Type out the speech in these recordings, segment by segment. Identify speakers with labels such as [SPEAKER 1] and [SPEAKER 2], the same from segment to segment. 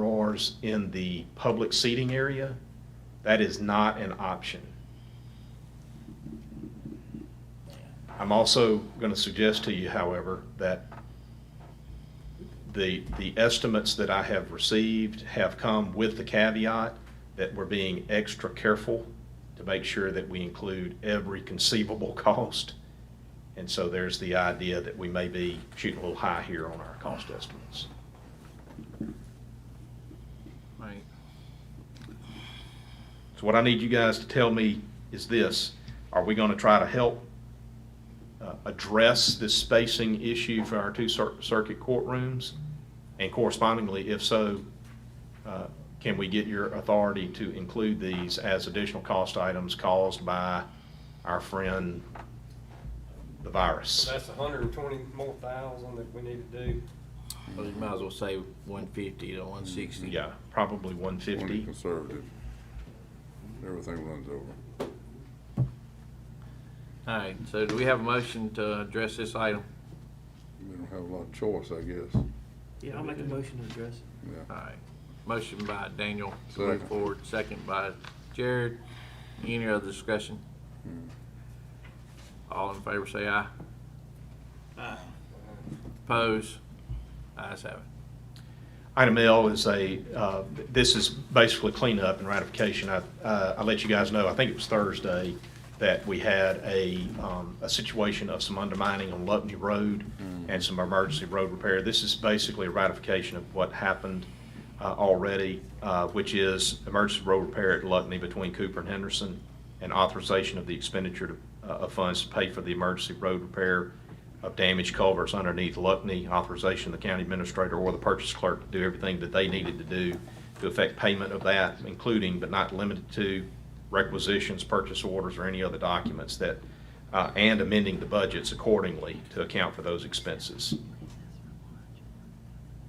[SPEAKER 1] drawers in the public seating area, that is not an option. I'm also going to suggest to you, however, that the, the estimates that I have received have come with the caveat that we're being extra careful to make sure that we include every conceivable cost. And so there's the idea that we may be shooting a little high here on our cost estimates.
[SPEAKER 2] Right.
[SPEAKER 1] So what I need you guys to tell me is this, are we gonna try to help uh, address this spacing issue for our two cir- circuit courtrooms? And correspondingly, if so, uh, can we get your authority to include these as additional cost items caused by our friend, the virus?
[SPEAKER 3] So that's a hundred and twenty more thousand that we need to do.
[SPEAKER 2] Well, you might as well say one fifty to one sixty.
[SPEAKER 1] Yeah, probably one
[SPEAKER 4] Want to be
[SPEAKER 1] fifty.
[SPEAKER 4] conservative. Everything runs over.
[SPEAKER 2] All right, so do we have a motion to address this item?
[SPEAKER 4] We don't have a lot of choice, I guess.
[SPEAKER 5] Yeah, I'll make a motion to address it.
[SPEAKER 2] All
[SPEAKER 4] Yeah.
[SPEAKER 2] right, motion by Daniel to
[SPEAKER 4] Second.
[SPEAKER 2] move forward, second by Jared. Any other discussion?
[SPEAKER 4] Mm.
[SPEAKER 2] All in favor say aye. Oppose? Ayes have it.
[SPEAKER 1] Item L is a, uh, this is basically cleanup and ratification. I, uh, I let you guys know, I think it was Thursday, that we had a, um, a situation of some undermining on Lutney Road and some emergency road repair. This is basically a ratification of what happened uh, already, uh, which is emergency road repair at Lutney between Cooper and Henderson and authorization of the expenditure to- uh, of funds to pay for the emergency road repair of damaged culverts underneath Luckney, authorization of the county administrator or the purchase clerk to do everything that they needed to do to effect payment of that, including but not limited to requisitions, purchase orders, or any other documents that, uh, and amending the budgets accordingly to account for those expenses.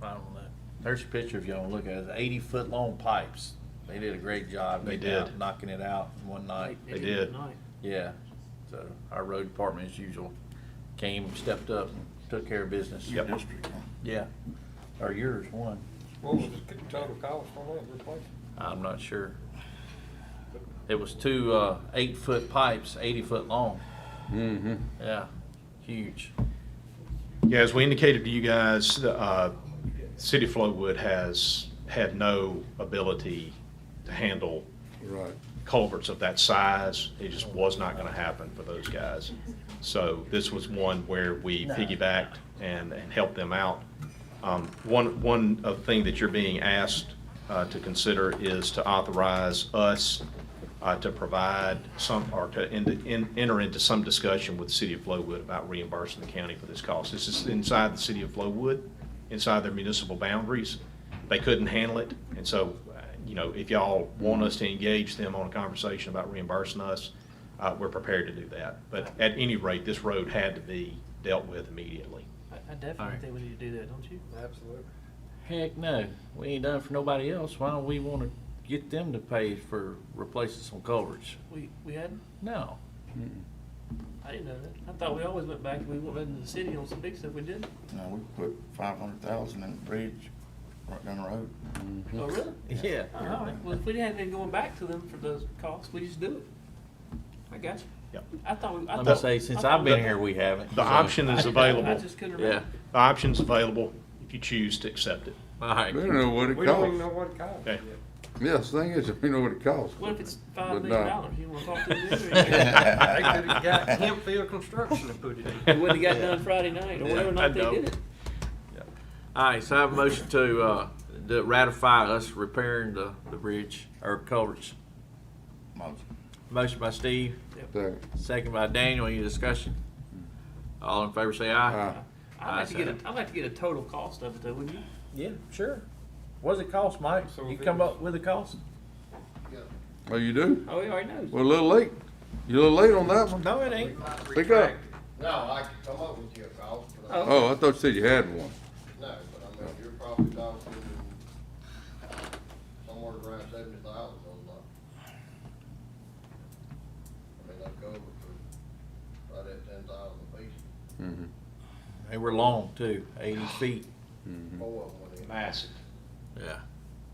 [SPEAKER 2] I don't know. There's a picture if you want to look at it, eighty-foot long pipes. They did a great job.
[SPEAKER 1] They
[SPEAKER 2] getting out,
[SPEAKER 1] did.
[SPEAKER 2] Knocking it out in one night.
[SPEAKER 1] They did.
[SPEAKER 5] tonight.
[SPEAKER 2] Yeah, so our road department as usual came, stepped up, and took care of business.
[SPEAKER 1] Yep.
[SPEAKER 2] Yeah, or yours, one.
[SPEAKER 3] What was the total cost on that replacement?
[SPEAKER 2] I'm not sure. It was two, uh, eight-foot pipes, eighty-foot long.
[SPEAKER 4] Mm-hmm.
[SPEAKER 2] Yeah, huge.
[SPEAKER 1] Yeah, as we indicated to you guys, uh, City of Flowood has had no ability to handle
[SPEAKER 4] Right.
[SPEAKER 1] culverts of that size, it just was not gonna happen for those guys. So this was one where we piggybacked and, and helped them out. Um, one, one uh, thing that you're being asked, uh, to consider is to authorize us, uh, to provide some, or to en- en- enter into some discussion with the city of Flowood about reimbursing the county for this cost. This is inside the city of Flowood, inside their municipal boundaries. They couldn't handle it, and so, uh, you know, if y'all want us to engage them on a conversation about reimbursing us, uh, we're prepared to do that. But at any rate, this road had to be dealt with immediately.
[SPEAKER 5] I I definitely
[SPEAKER 2] Alright.
[SPEAKER 5] think we need to do that, don't you?
[SPEAKER 3] Absolutely.
[SPEAKER 2] Heck, no, we ain't done it for nobody else. Why don't we wanna get them to pay for replacing some culverts?
[SPEAKER 5] We, we hadn't,
[SPEAKER 2] No.
[SPEAKER 5] I didn't know that. I thought we always went back, and we went back to the city on some big stuff we did.
[SPEAKER 6] No, we put five hundred thousand in the bridge right down the road.
[SPEAKER 5] Oh, really?
[SPEAKER 2] Yeah.
[SPEAKER 5] All right, well, if we hadn't been going back to them for those costs, we just do it. I got you.
[SPEAKER 1] Yep.
[SPEAKER 5] I thought, we- I
[SPEAKER 2] Let
[SPEAKER 5] thought.
[SPEAKER 2] me say, since
[SPEAKER 5] I thought-
[SPEAKER 2] I've been here, we haven't.
[SPEAKER 1] The
[SPEAKER 2] so-
[SPEAKER 1] option
[SPEAKER 5] I
[SPEAKER 1] is
[SPEAKER 5] didn't know. I
[SPEAKER 1] available,
[SPEAKER 5] just couldn't
[SPEAKER 2] Yeah,
[SPEAKER 5] remember.
[SPEAKER 1] the option's available if you choose to accept it,
[SPEAKER 2] all right.
[SPEAKER 4] We don't know what it
[SPEAKER 3] We don't even know
[SPEAKER 4] costs.
[SPEAKER 3] what it costs
[SPEAKER 1] okay?
[SPEAKER 3] yet.
[SPEAKER 4] Yes, thing is, we know what it costs.
[SPEAKER 5] What if it's
[SPEAKER 4] But
[SPEAKER 5] five million
[SPEAKER 4] no.
[SPEAKER 5] dollars? You wanna talk to them?
[SPEAKER 3] They could've got Hempfield Construction to put it in.
[SPEAKER 5] We wouldn't have got done Friday night, or whatever
[SPEAKER 2] I
[SPEAKER 5] night they
[SPEAKER 2] know.
[SPEAKER 5] did it.
[SPEAKER 2] All right, so I have a motion to, uh, to ratify us repairing the, the bridge or culverts.
[SPEAKER 6] Most.
[SPEAKER 2] Motion by Steve,
[SPEAKER 4] Second.
[SPEAKER 2] second by Daniel. Any discussion? All in favor, say aye.
[SPEAKER 4] Aye.
[SPEAKER 5] I'd like to get a, I'd like to get a total cost of it though, wouldn't you?
[SPEAKER 2] Yeah, sure. What does it cost, Mike?
[SPEAKER 3] So You if it come
[SPEAKER 2] up with a cost?
[SPEAKER 4] Oh, you do?
[SPEAKER 5] Oh, he already knows.
[SPEAKER 4] Well, a little late. You're a little late on that one.
[SPEAKER 2] No, it ain't.
[SPEAKER 4] Pick up.
[SPEAKER 7] No, I could come up with you a cost, but I,
[SPEAKER 5] Oh.
[SPEAKER 4] Oh, I thought you said you had one.
[SPEAKER 7] no, but I mean, you're probably talking somewhere around seventy thousand on that. I mean, I'd go over for right at ten thousand apiece,
[SPEAKER 4] Mm-hmm.
[SPEAKER 2] They were long too, eighty feet.
[SPEAKER 7] four of them went in.
[SPEAKER 1] Massive.
[SPEAKER 2] Yeah.